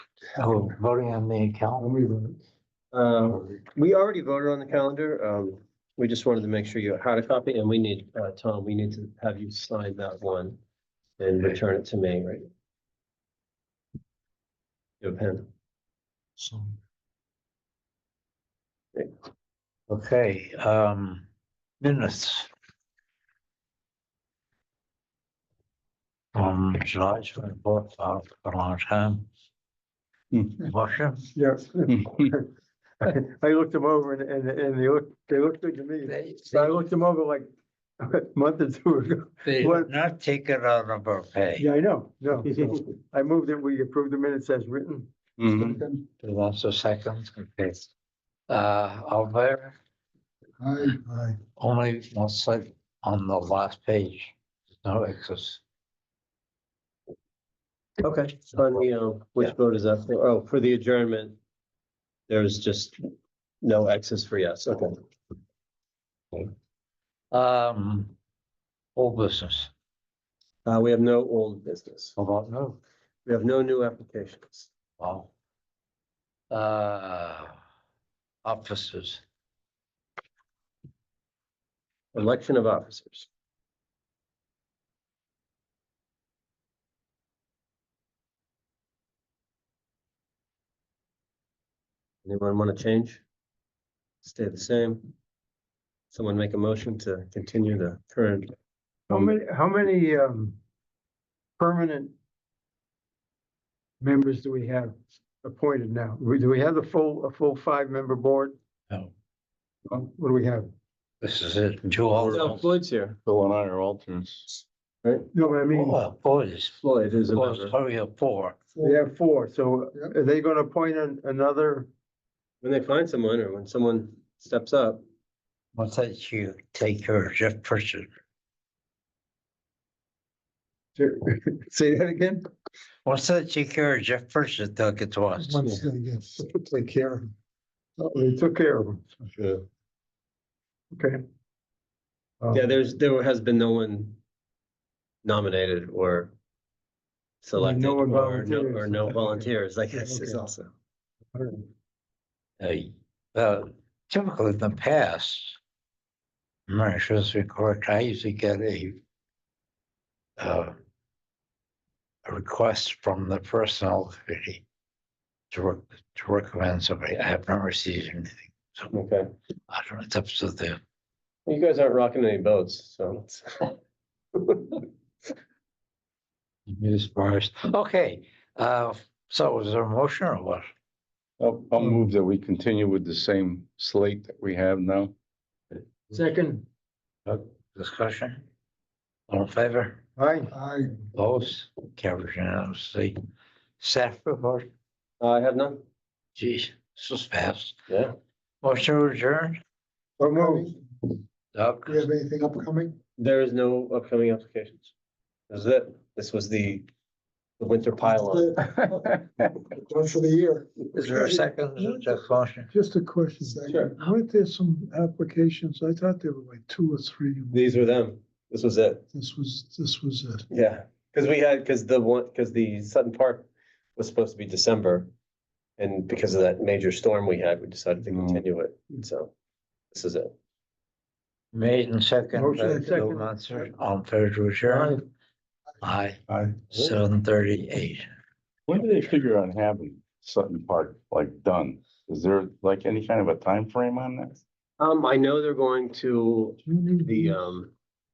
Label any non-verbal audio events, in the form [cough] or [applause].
Oh, voting on the account. Uh, we already voted on the calendar. Um, we just wanted to make sure you had a copy and we need, uh, Tom, we need to have you sign that one and return it to me, right? Your pen. Okay, um, minutes. From July, it's been bought for a long time. Hmm. Motion? Yeah. [laughs] I looked them over and, and, and they look, they looked good to me. So I looked them over like [laughs] a month or two ago. [laughs] They What- did not take it out of our pay. Yeah, I know, no. so I moved that we approve the minutes as written. Mm-hmm. Mm-hmm. So That's a second, okay. Uh, all in favor? Only one side on the last page, no excess. Okay. On the, uh, which vote is that? for? Oh, for the adjournment. There is just no access for yes. Okay. Um, all business, Uh, we have no old business. how about no? We have no new applications. Wow. Uh, officers, Election of officers. Anyone want to change? Stay the same? Someone make a motion to continue the current, How many, how many, um, permanent members do we have appointed now? We- Do we have the full, a full five-member board? no, Um, What do we have? this is it, two No, alternates. Floyd's here, Phil and I are alternates. right? No, but I mean, Oh, boys, Floyd is a boys, member. hurry up, four. we have four, so are they gonna appoint an- another? When they find someone or when someone steps up, What's that you take care of Jeff Pritchard? [laughs] Say that again? What's that you care of Jeff Pritchard, they'll get to us. [laughs] Take care of Oh, They took care of them, okay. Uh, yeah, there's, there has been no one nominated or selected no or one no, volunteers. or no volunteers, I guess is okay. also. all right. Hey, uh, typically in the past. I'm not sure this is correct, I usually get a. Uh. A request from the personnel committee. To rec- to recommend somebody, I have not received anything, so Okay. I don't, know, it's up to the, You guys aren't rocking any boats, so. news bars, okay, uh, so is there a motion or what? I'll, I'll move that we continue with the same slate that we have now. Second. Discussion? All in favor? Aye. Those carried unanimously. Staff report, [laughs] I have none. geez, this was fast. Yeah. Motion to adjourn. So moved. Doug, anything upcoming? There is no upcoming applications. This is it. This was the, the winter pylon. That's for the year. is there a second to the motion? Just a question. Sure. Aren't there some applications? I thought there were like two or three. These were them. This was it. This was, this was it. Yeah, because we had, because the one, because the Sutton Park was supposed to be December. And because of that major storm we had, we decided to Mm. continue it. So this is it. Made and second, Motion and Bill second. Munson, on fair to adjourn. Aye, Aye. seven thirty-eight. [laughs] When do they figure on having Sutton Park like done? Is there like any kind of a time frame on that? Um, I know they're going to the, um,